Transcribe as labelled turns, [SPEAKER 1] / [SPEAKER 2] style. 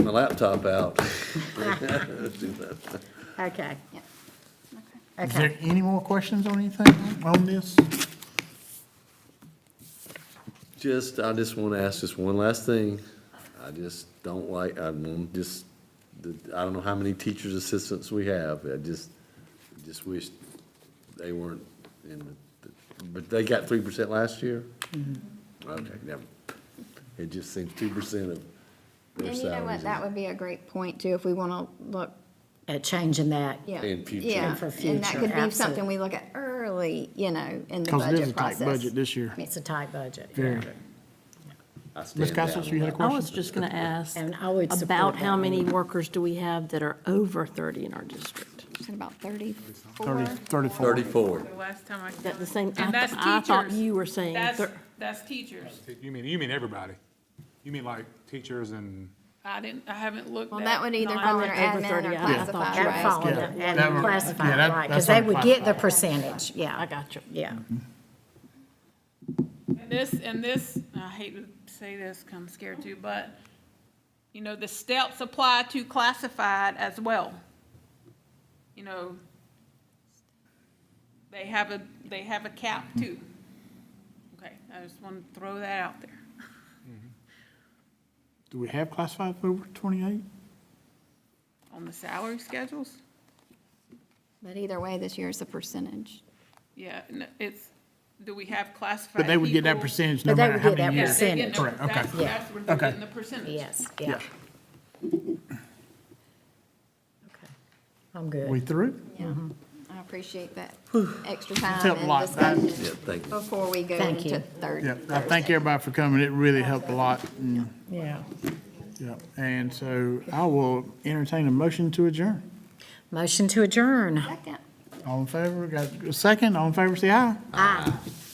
[SPEAKER 1] my laptop out. Let's do that.
[SPEAKER 2] Okay,
[SPEAKER 3] Yeah. Okay.
[SPEAKER 4] Is there
[SPEAKER 2] okay.
[SPEAKER 4] any more questions on anything on this?
[SPEAKER 1] Just, I just want to ask just one last thing. I just don't like, I don't just, I don't know how many teachers' assistants we have. I just, just wish they weren't in, the- but they got three percent last year? Okay, never. It just seems two percent of their
[SPEAKER 3] And you know what,
[SPEAKER 1] salaries.
[SPEAKER 3] that would be a great point too, if we want to look,
[SPEAKER 2] At changing that.
[SPEAKER 3] yeah.
[SPEAKER 1] In future.
[SPEAKER 3] yeah,
[SPEAKER 2] And for
[SPEAKER 3] And that
[SPEAKER 2] future,
[SPEAKER 3] could be something
[SPEAKER 2] absolutely.
[SPEAKER 3] we look at early, you know, in the
[SPEAKER 4] Because it is a
[SPEAKER 3] budget
[SPEAKER 4] tight
[SPEAKER 3] process.
[SPEAKER 4] budget this year.
[SPEAKER 2] It's a tight budget.
[SPEAKER 4] Very.
[SPEAKER 1] I stand
[SPEAKER 4] Ms.
[SPEAKER 1] down
[SPEAKER 4] Costas,
[SPEAKER 1] on
[SPEAKER 4] you had a
[SPEAKER 1] that.
[SPEAKER 5] I
[SPEAKER 4] question?
[SPEAKER 5] was just going to ask
[SPEAKER 2] And I would support
[SPEAKER 5] about how
[SPEAKER 2] that.
[SPEAKER 5] many workers do we have that are over 30 in our district?
[SPEAKER 3] Is it About
[SPEAKER 4] Thirty,
[SPEAKER 3] thirty-four.
[SPEAKER 4] thirty-four.
[SPEAKER 1] Thirty-four.
[SPEAKER 6] The last time I.
[SPEAKER 5] Is that the same? I
[SPEAKER 6] And that's
[SPEAKER 5] th- I thought
[SPEAKER 6] teachers.
[SPEAKER 5] you were saying
[SPEAKER 6] That's,
[SPEAKER 5] thir-
[SPEAKER 6] that's teachers.
[SPEAKER 7] You mean, you mean everybody? You mean like teachers and,
[SPEAKER 6] I didn't, I haven't looked at.
[SPEAKER 3] Well, that would either
[SPEAKER 6] non-
[SPEAKER 3] come under
[SPEAKER 5] like over
[SPEAKER 3] admin
[SPEAKER 5] 30,
[SPEAKER 3] or
[SPEAKER 5] yeah, I thought
[SPEAKER 3] classified,
[SPEAKER 5] you
[SPEAKER 2] That
[SPEAKER 3] right?
[SPEAKER 2] fall
[SPEAKER 4] Yeah.
[SPEAKER 2] under
[SPEAKER 4] That would-
[SPEAKER 2] admin
[SPEAKER 4] yeah,
[SPEAKER 2] classified, right,
[SPEAKER 4] that- that's
[SPEAKER 2] because they
[SPEAKER 4] what Mm-hmm.
[SPEAKER 2] would get the
[SPEAKER 4] classified.
[SPEAKER 2] percentage, yeah.
[SPEAKER 5] I got you.
[SPEAKER 2] Yeah,
[SPEAKER 6] And This, and this, I hate to say this, 'cause I'm scared too, but, you know, the steps apply to classified as well. You know, they have a, they have a cap too. Okay, I just want to throw that out there.
[SPEAKER 4] Do we have classified over twenty-eight?
[SPEAKER 6] On the salary schedules,
[SPEAKER 3] But either way, this year is a percentage.
[SPEAKER 6] yeah, n- it's, do we have classified
[SPEAKER 4] But they would get that
[SPEAKER 6] people?
[SPEAKER 4] percentage no
[SPEAKER 2] But they
[SPEAKER 4] matter
[SPEAKER 2] would
[SPEAKER 4] how
[SPEAKER 2] get that
[SPEAKER 4] many
[SPEAKER 6] Yeah,
[SPEAKER 4] years.
[SPEAKER 6] they get
[SPEAKER 2] percentage.
[SPEAKER 6] the-
[SPEAKER 4] Correct, okay.
[SPEAKER 6] That's,
[SPEAKER 2] Yeah.
[SPEAKER 6] that's where they're
[SPEAKER 4] Okay.
[SPEAKER 6] getting the percentage.
[SPEAKER 2] yes, yeah.
[SPEAKER 4] Yeah.
[SPEAKER 2] Okay. I'm good.
[SPEAKER 4] We through?
[SPEAKER 3] Yeah, I appreciate that extra
[SPEAKER 4] That's helped a
[SPEAKER 3] time
[SPEAKER 4] lot.
[SPEAKER 3] and discussion
[SPEAKER 1] Yeah, thank you.
[SPEAKER 3] before we go
[SPEAKER 2] Thank you.
[SPEAKER 3] into third.
[SPEAKER 4] Yeah, I thank everybody for coming. It really helped a lot. and-
[SPEAKER 2] Yeah.
[SPEAKER 4] Yeah, and so I will entertain a motion to adjourn.
[SPEAKER 2] Motion to adjourn.
[SPEAKER 3] Second.
[SPEAKER 4] All in favor, got a second, all in favor, say aye.